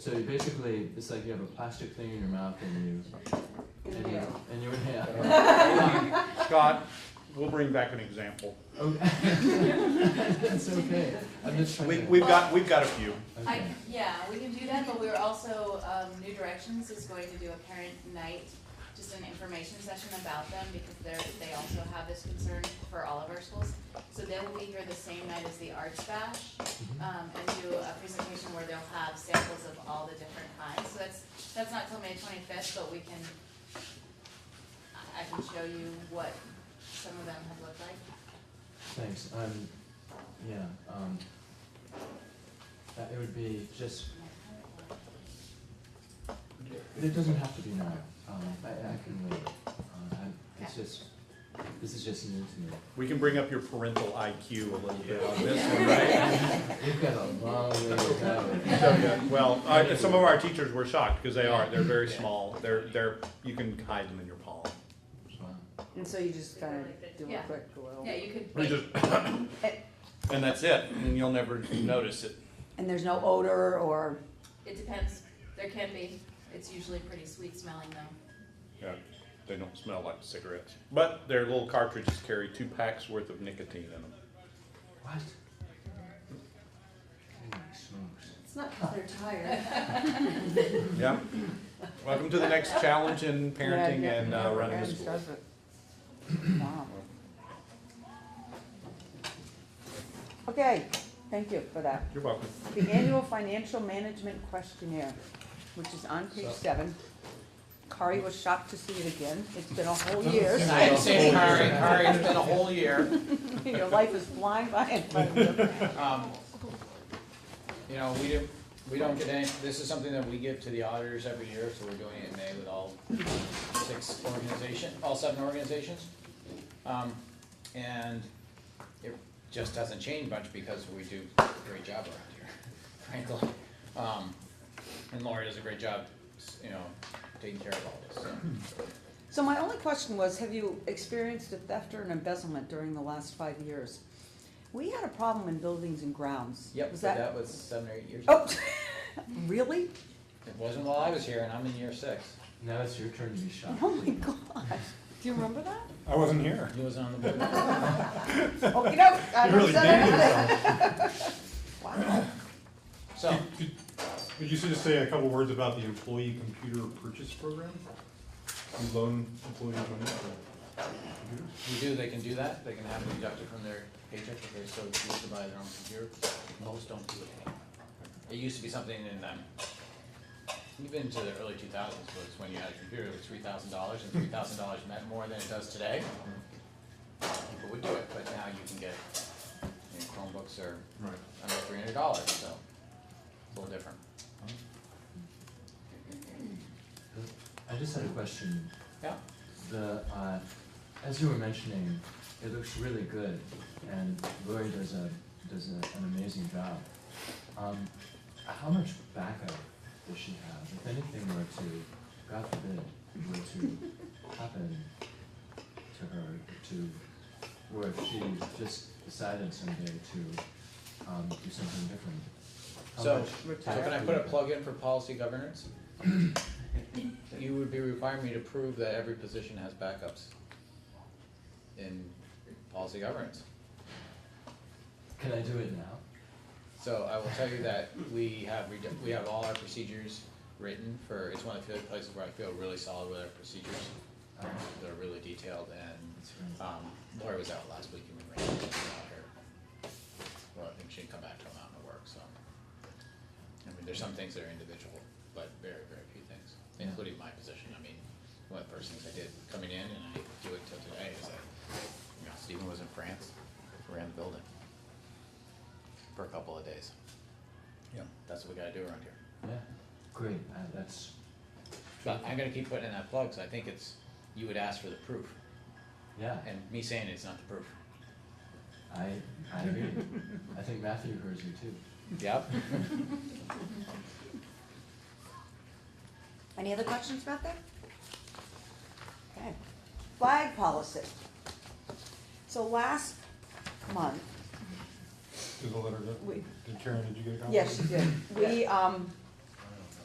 So basically, it's like you have a plastic thing in your mouth and you and you, and you inhale. Scott, we'll bring back an example. Okay. That's okay. I'm just trying We, to. we've got, we've got a few. I, okay. yeah, we can do that, but we're also, um, New Directions is going to do a parent night, just an information session about them, because they're, they also have this concern for all of our schools. So they will be here the same night as the Arts Bash, um, and do a presentation where they'll have samples of all the different kinds. So that's, that's not till May twenty-fifth, but we can, I- I can show you what some of them have looked like. Thanks. Um, yeah. Um, uh, it would be just. It doesn't have to be now. Um, I, I can wait. Uh, I, it's just. This is just new to me. We can bring up your parental IQ a little bit on this one, right? We've got a long way to go. So, yeah, Well, uh, some of our teachers were shocked, because they are, they're very small, they're, they're, you can hide them in your palm. Wow. And so you just kind of do a Yeah. quick little. Yeah, you could. We just, and that's it, and you'll never notice it. And there's no odor or, It depends. There can be. It's usually pretty sweet smelling though. Yeah, they don't smell like cigarettes, but their little cartridges carry two packs worth of nicotine in them. What? Holy smokes. It's not because they're tired. Yeah. Welcome to the next challenge in parenting Yeah, and uh, running a Aaron school. does it. Wow. Okay, thank you for that. You're welcome. The annual financial management questionnaire, which is on page seven. Kari was shocked to see it again. It's been a whole year. I didn't say it's Kari, Kari, it's been a whole year. Your life is flying by in front of you. Um, You know, we didn't, we don't get any, this is something that we give to the auditors every year, so we're doing it in May with all six organization, all seven organizations. Um, And it just doesn't change much because we do a great job around here, frankly. Um, And Lori does a great job, you know, taking care of all this, so. So my only question was, have you experienced a theft or an embezzlement during the last five years? We had a problem in buildings and grounds. Yep, Was but that was seven or eight years ago. Oh, really? It wasn't while I was here, and I'm in year six. Now it's your turn to be shocked. Oh my gosh. Do you remember that? I wasn't here. He was on the board. Oh, you know, I You don't really say dated anything. yourself. Wow. So, Could could you just say a couple words about the employee computer purchase program? You loan employees money for computers? we do, they can do that, they can have it deducted from their paycheck if they so choose to buy their own computer. Most don't do it anymore. It used to be something in, um, even to the early two thousands, was when you had a computer, it was three thousand dollars, and three thousand dollars meant more than it does today. People would do it, but now you can get, you know, Chromebooks are Right. under three hundred dollars, so it's a little different. I just had a question. Yeah, The uh, as you were mentioning, it looks really good, and Lori does a does a, an amazing job. Um, how much backup does she have? If anything were to, God forbid, were to happen to her, to or if she just decided someday to um, do something different. How So- much so Retire. can I put a plug in for policy governance? You would be requiring me to prove that every position has backups in policy governance. can I do it now? So I will tell you that we have, redu- we have all our procedures written for, it's one of the few places where I feel really solid with our procedures. Um, They're really detailed and, that's right. um, Laura was out last week, you remember, she was out here. Well, I think she'd come back to a mountain of work, so. I mean, there's some things that are individual, but very, very few things, including my position. I mean, one of the first things I did coming in, and I do it till today, is I, you know, Stephen was in France, ran the building for a couple of days. Yeah. That's what we gotta do around here. Yeah, great. Uh, that's But I'm gonna keep putting in that plug, 'cause I think it's, you would ask for the proof, yeah. and me saying it's not the proof. I I agree. I think Matthew hears you too. Yep. Any other questions about that? Okay. Flag policy. So last month, Did the letter go? We- Did Karen, did you get a copy? yes, you did, we, um,